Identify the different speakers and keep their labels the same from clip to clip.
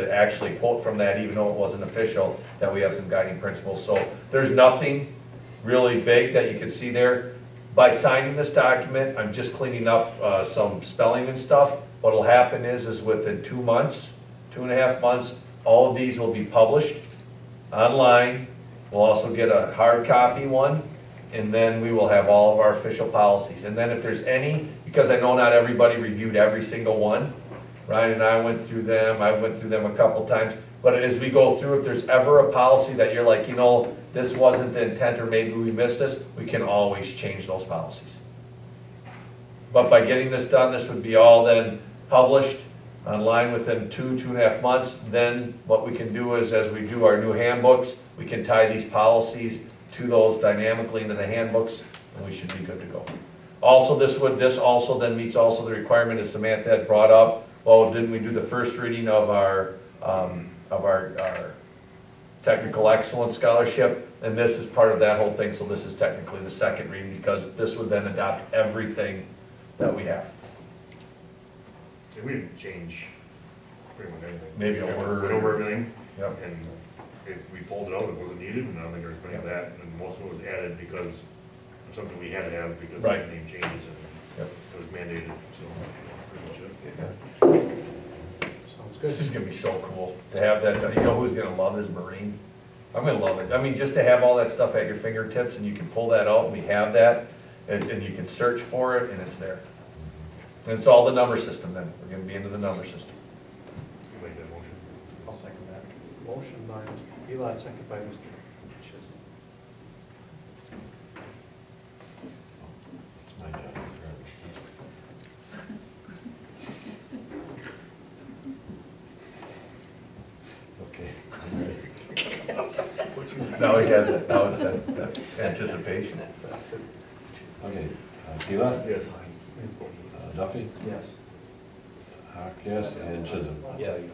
Speaker 1: to actually quote from that, even though it wasn't official, that we have some guiding principles. So there's nothing really big that you can see there. By signing this document, I'm just cleaning up uh, some spelling and stuff. What'll happen is, is within two months, two and a half months, all of these will be published online. We'll also get a hard copy one, and then we will have all of our official policies. And then if there's any, because I know not everybody reviewed every single one, Ryan and I went through them, I went through them a couple times. But as we go through, if there's ever a policy that you're like, you know, this wasn't the intent, or maybe we missed this, we can always change those policies. But by getting this done, this would be all then published online within two, two and a half months. Then what we can do is, as we do our new handbooks, we can tie these policies to those dynamically into the handbooks, and we should be good to go. Also, this would, this also then meets also the requirement, as Samantha had brought up, well, didn't we do the first reading of our, um, of our, our technical excellence scholarship? And this is part of that whole thing, so this is technically the second reading, because this would then adopt everything that we have.
Speaker 2: Yeah, We didn't change pretty much anything.
Speaker 1: Maybe a
Speaker 2: We
Speaker 1: word.
Speaker 2: Went over everything,
Speaker 1: Yep.
Speaker 2: and if we pulled it out, it wasn't needed, and I don't think there was any of that, and most of it was added because of something we had to have because of the
Speaker 1: Right.
Speaker 2: name changes, and
Speaker 1: Yep.
Speaker 2: it was mandated, so. that's pretty much it.
Speaker 3: Sounds
Speaker 1: This
Speaker 3: good.
Speaker 1: is gonna be so cool to have that done. You know who's gonna love is Marine? I'm gonna love it. I mean, just to have all that stuff at your fingertips and you can pull that out, and we have that, and, and you can search for it and it's there. And it's all the number system then. We're gonna be into the number system.
Speaker 2: You made that motion.
Speaker 3: I'll second that. Motion by Mr. Elon, second by Mr. Chisholm.
Speaker 2: It's my job. Okay.
Speaker 1: Now he has it. Now it's that that anticipation.
Speaker 3: That's it.
Speaker 4: Okay, uh, Tila,
Speaker 2: Yes.
Speaker 4: uh, Duffy,
Speaker 3: Yes.
Speaker 4: Hawk, yes, and Chisholm.
Speaker 3: Yes.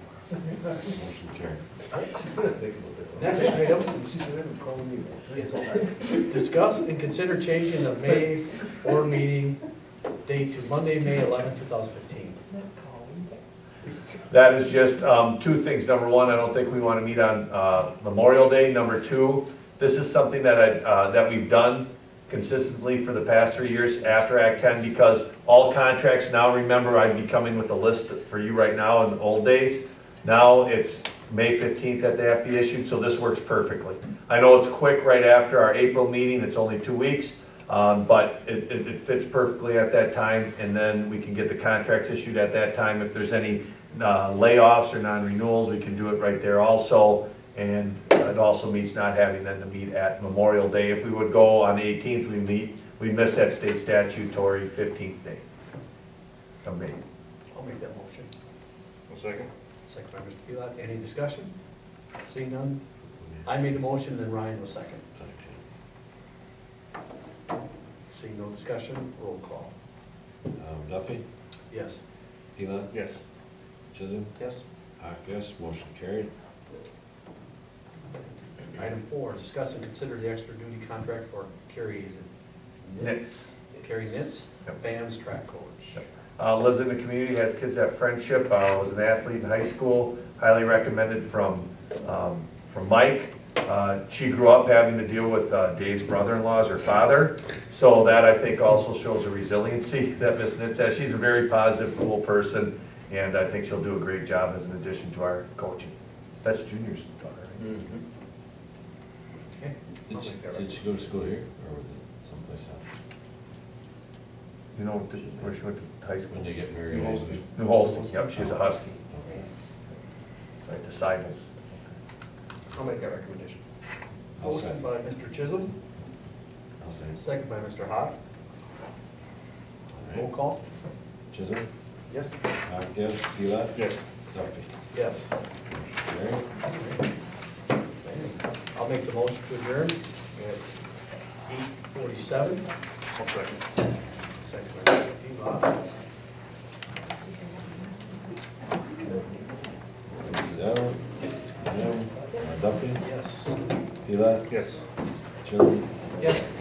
Speaker 4: Motion carried.
Speaker 3: Next item, discuss and consider changing the May board meeting date to Monday, May 11, 2015.
Speaker 1: That is just um, two things. Number one, I don't think we want to meet on uh, Memorial Day. Number two, this is something that I, uh, that we've done consistently for the past three years after Act 10, because all contracts now, remember, I'd be coming with a list for you right now in the old days. Now it's May 15th that they have to be issued, so this works perfectly. I know it's quick right after our April meeting, it's only two weeks, um, but it, it it fits perfectly at that time, and then we can get the contracts issued at that time. If there's any uh, layoffs or non-renewals, we can do it right there also. And it also means not having them to meet at Memorial Day. If we would go on the 18th, we meet, we miss that state statutory 15th day. of May.
Speaker 3: I'll make that motion.
Speaker 2: One second.
Speaker 3: Second by Mr. Elon, any discussion? Seeing none, I made the motion, and Ryan was second. Seeing no discussion, roll call.
Speaker 4: Um, Duffy,
Speaker 3: Yes.
Speaker 4: Tila,
Speaker 2: Yes.
Speaker 4: Chisholm,
Speaker 3: Yes.
Speaker 4: Hawk, yes, motion carried.
Speaker 3: Item four, discuss and consider the extra duty contract for Carrie, is it?
Speaker 1: Nits.
Speaker 3: Carrie Nitz,
Speaker 1: Yep.
Speaker 3: BAM's track coach.
Speaker 1: Uh, lives in the community, has kids at Friendship, uh, was an athlete in high school, highly recommended from, um, from Mike. Uh, she grew up having to deal with, uh, Dave's brother-in-law as her father, so that I think also shows a resiliency that Miss Nitz has. She's a very positive, cool person, and I think she'll do a great job as an addition to our coaching. That's Junior's daughter, right?
Speaker 3: Okay. I'll
Speaker 4: Did she,
Speaker 3: make that
Speaker 4: did she go to school here, or was it someplace else?
Speaker 1: You know, where she went to high school?
Speaker 4: When they get married?
Speaker 1: Mm-hmm. New Holston. New Holston, yep, she's a Husky,
Speaker 4: Okay.
Speaker 1: right, disciples.
Speaker 3: I'll make that recommendation.
Speaker 4: I'll second.
Speaker 3: Motion by Mr. Chisholm,
Speaker 4: I'll say.
Speaker 3: second by Mr. Hawk.
Speaker 4: All
Speaker 3: Roll
Speaker 4: right.
Speaker 3: call?
Speaker 4: Chisholm,
Speaker 3: Yes.
Speaker 4: Hawk, yes, Tila,
Speaker 2: Yes.
Speaker 4: Duffy,
Speaker 3: Yes.
Speaker 4: carried.
Speaker 3: I'll make the motion to adjourn at eight forty-seven,
Speaker 2: One second.
Speaker 3: second by Mr. Elon.
Speaker 4: Zell, Jim, uh, Duffy,
Speaker 3: Yes.
Speaker 4: Tila,
Speaker 2: Yes.
Speaker 4: Chisholm,
Speaker 3: Yes.